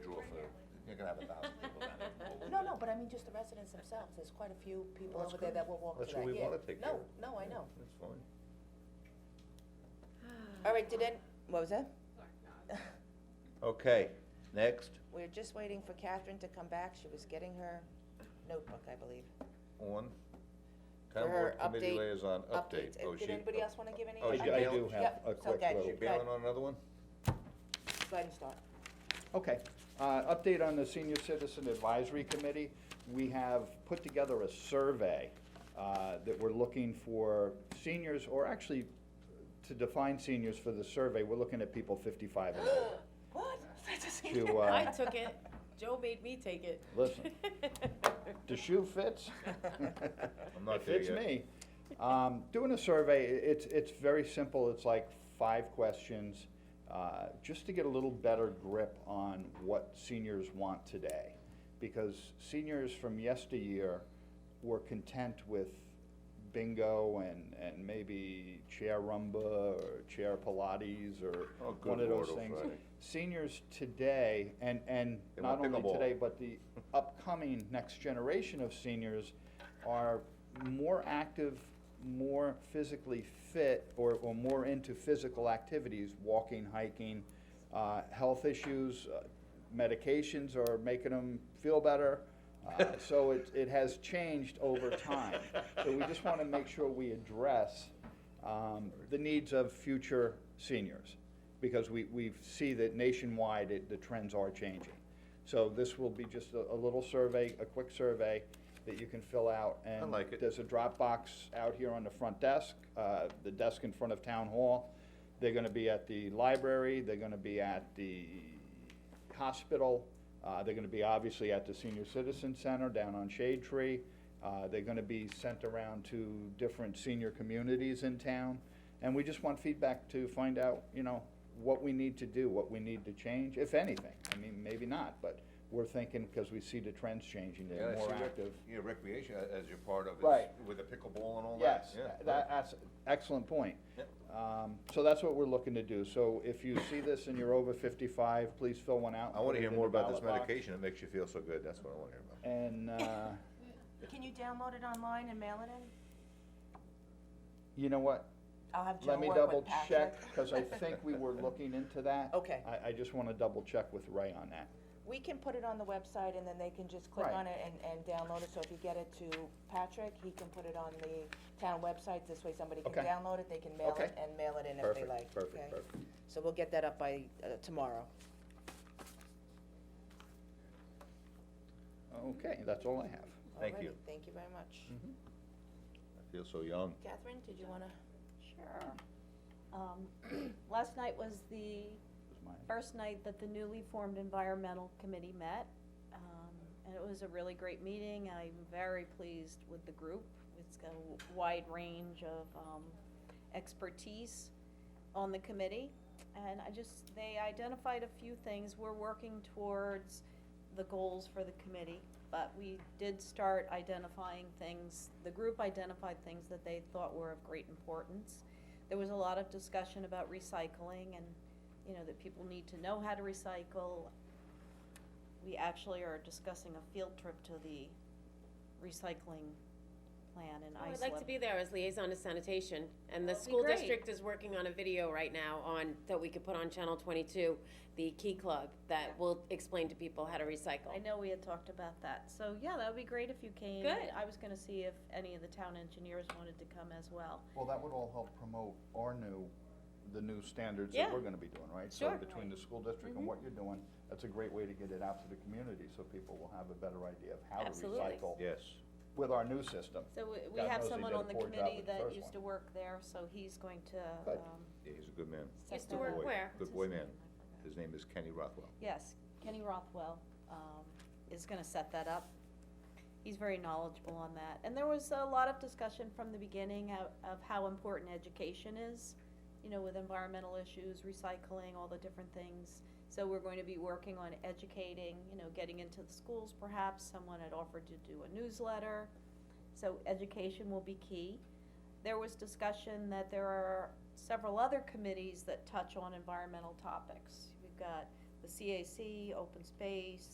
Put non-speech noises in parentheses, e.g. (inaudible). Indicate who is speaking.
Speaker 1: gonna have a thousand people down
Speaker 2: (laughs)
Speaker 1: there.
Speaker 2: No, no, but I mean just the residents themselves, there's quite a few people
Speaker 1: Well, that's
Speaker 2: over there
Speaker 1: good.
Speaker 2: that will walk to that,
Speaker 1: That's
Speaker 2: yeah.
Speaker 1: what we wanna take care of.
Speaker 2: No, no, I know.
Speaker 1: That's fine.
Speaker 2: All right, did any, what was that?
Speaker 1: Okay, next,
Speaker 2: (laughs) We're just waiting for Catherine to come back, she was getting her notebook, I believe.
Speaker 1: on,
Speaker 2: For
Speaker 1: town
Speaker 2: her
Speaker 1: board committee
Speaker 2: update-
Speaker 1: liaison update.
Speaker 2: Updates,
Speaker 1: Oh,
Speaker 2: and did
Speaker 1: she-
Speaker 2: anybody else wanna give any?
Speaker 1: Oh,
Speaker 3: I
Speaker 1: she
Speaker 3: do- I
Speaker 1: bailed?
Speaker 3: do have
Speaker 2: Yep,
Speaker 3: a
Speaker 2: so
Speaker 3: quick
Speaker 2: go ahead,
Speaker 3: little.
Speaker 1: She bailing on another one?
Speaker 2: Go ahead and start.
Speaker 3: Okay, uh, update on the Senior Citizen Advisory Committee. We have put together a survey, uh, that we're looking for seniors, or actually, to define seniors for the survey, we're looking at people fifty-five
Speaker 2: (gasps)
Speaker 3: and older.
Speaker 2: What? (laughs)
Speaker 3: To, uh,
Speaker 4: I took it, Joe made me take it. (laughs)
Speaker 3: Listen. The shoe fits?
Speaker 1: I'm not there yet.
Speaker 3: It fits me. Um, doing a survey, i- it's, it's very simple, it's like five questions, uh, just to get a little better grip on what seniors want today. Because seniors from yesteryear were content with bingo and, and maybe chair rumba or chair Pilates or
Speaker 1: Oh, good
Speaker 3: one of those
Speaker 1: Lord, oh,
Speaker 3: things.
Speaker 1: Friday.
Speaker 3: Seniors today, and, and
Speaker 1: They
Speaker 3: not
Speaker 1: want
Speaker 3: only
Speaker 1: pickleball.
Speaker 3: today, but the upcoming next generation of seniors are more active, more physically fit, or, or more into physical activities, walking, hiking, uh, health issues, uh, medications are making them feel better. Uh, so it, it has changed over time. So we just want to make sure we address um, the needs of future seniors because we, we see that nationwide it, the trends are changing. So this will be just a, a little survey, a quick survey that you can fill out.
Speaker 1: I like it.
Speaker 3: And there's a Dropbox out here on the front desk, uh, the desk in front of Town Hall. They're gonna be at the library, they're gonna be at the hospital, uh, they're gonna be obviously at the Senior Citizen Center down on Shade Tree. Uh, they're gonna be sent around to different senior communities in town. And we just want feedback to find out, you know, what we need to do, what we need to change, if anything. I mean, maybe not, but we're thinking, because we see the trends changing,
Speaker 1: Yeah, I
Speaker 3: they're
Speaker 1: see
Speaker 3: more
Speaker 1: rec-
Speaker 3: active.
Speaker 1: Yeah, recreation a- as you're part of, is
Speaker 3: Right.
Speaker 1: with the pickleball and all that.
Speaker 3: Yes,
Speaker 1: Yeah,
Speaker 3: tha-
Speaker 1: right.
Speaker 3: that, that's, excellent point.
Speaker 1: Yep.
Speaker 3: Um, so that's what we're looking to do, so if you see this and you're over fifty-five, please fill one out. and
Speaker 1: I wanna
Speaker 3: put it
Speaker 1: hear
Speaker 3: in
Speaker 1: more
Speaker 3: the
Speaker 1: about this
Speaker 3: ballot box.
Speaker 1: medication, it makes you feel so good, that's what I wanna hear about.
Speaker 3: And,
Speaker 1: (laughs)
Speaker 3: uh,
Speaker 2: Can you download it online and mail it in?
Speaker 3: you know what,
Speaker 2: I'll have Joe
Speaker 3: let me
Speaker 2: work
Speaker 3: double
Speaker 2: with Patrick.
Speaker 3: check, cause
Speaker 2: (laughs)
Speaker 3: I think
Speaker 1: (laughs)
Speaker 3: we were looking into that.
Speaker 2: Okay.
Speaker 3: I, I just wanna double check with Ray on that.
Speaker 2: We can put it on the website and then they can just click
Speaker 3: Right.
Speaker 2: on it and, and download it, so if you get it to Patrick, he can put it on the town website, this way somebody can
Speaker 3: Okay.
Speaker 2: download it, they can mail it
Speaker 3: Okay.
Speaker 2: and mail it in if they
Speaker 3: Perfect,
Speaker 2: like, okay?
Speaker 3: perfect, perfect.
Speaker 2: So we'll get that up by, uh, tomorrow.
Speaker 3: Okay, that's all I have.
Speaker 1: Thank you.
Speaker 2: Alrighty, Thank you very much.
Speaker 1: Mm-hmm. I feel so young.
Speaker 2: Catherine, did you wanna?
Speaker 5: Sure. Um, Last night was the
Speaker 3: That's mine.
Speaker 5: first night that the newly formed environmental committee met. um, And it was a really great meeting. I'm very pleased with the group. It's got a w- wide range of um, expertise on the committee. And I just, they identified a few things. We're working towards the goals for the committee, but we did start identifying things. The group identified things that they thought were of great importance. There was a lot of discussion about recycling and, you know, that people need to know how to recycle. We actually are discussing a field trip to the recycling plan in
Speaker 4: Oh, I'd
Speaker 5: Islip.
Speaker 4: like to be there as liaison to sanitation, and the
Speaker 5: That would be
Speaker 4: school
Speaker 5: great.
Speaker 4: district is working on a video right now on, that we could put on Channel twenty-two, the Key Club, that
Speaker 5: Yeah.
Speaker 4: will explain to people how to recycle.
Speaker 5: I know we had talked about that, so yeah, that would be great if you came.
Speaker 4: Good.
Speaker 5: I was gonna see if any of the town engineers wanted to come as well.
Speaker 3: Well, that would all help promote our new, the new standards that
Speaker 4: Yeah.
Speaker 3: we're gonna be doing, right?
Speaker 4: Sure. Mm-hmm.
Speaker 3: So between the school district and what you're doing, that's a great way to get it out to the community, so people will have a better idea of how to
Speaker 4: Absolutely.
Speaker 3: recycle
Speaker 1: Yes,
Speaker 3: with our new system.
Speaker 5: So we- we
Speaker 3: God
Speaker 5: have
Speaker 3: knows they
Speaker 5: someone
Speaker 3: did a
Speaker 5: on the
Speaker 3: poor job
Speaker 5: committee
Speaker 3: with the
Speaker 5: that
Speaker 3: first
Speaker 5: used to
Speaker 3: one.
Speaker 5: work there, so he's going to,
Speaker 3: Good.
Speaker 5: um,
Speaker 1: yeah, he's a good man,
Speaker 4: Used
Speaker 5: set
Speaker 4: to
Speaker 5: that
Speaker 4: work
Speaker 5: up.
Speaker 1: boy.
Speaker 4: where?
Speaker 1: good
Speaker 5: What's
Speaker 1: boy
Speaker 5: his
Speaker 1: man.
Speaker 5: name? I forgot.
Speaker 1: His name is Kenny Rothwell.
Speaker 5: Yes, Kenny Rothwell, um, is gonna set that up. He's very knowledgeable on that. And there was a lot of discussion from the beginning of, of how important education is, you know, with environmental issues, recycling, all the different things. So we're going to be working on educating, you know, getting into the schools perhaps. Someone had offered to do a newsletter. So education will be key. There was discussion that there are several other committees that touch on environmental topics. We've got the CAC, open space,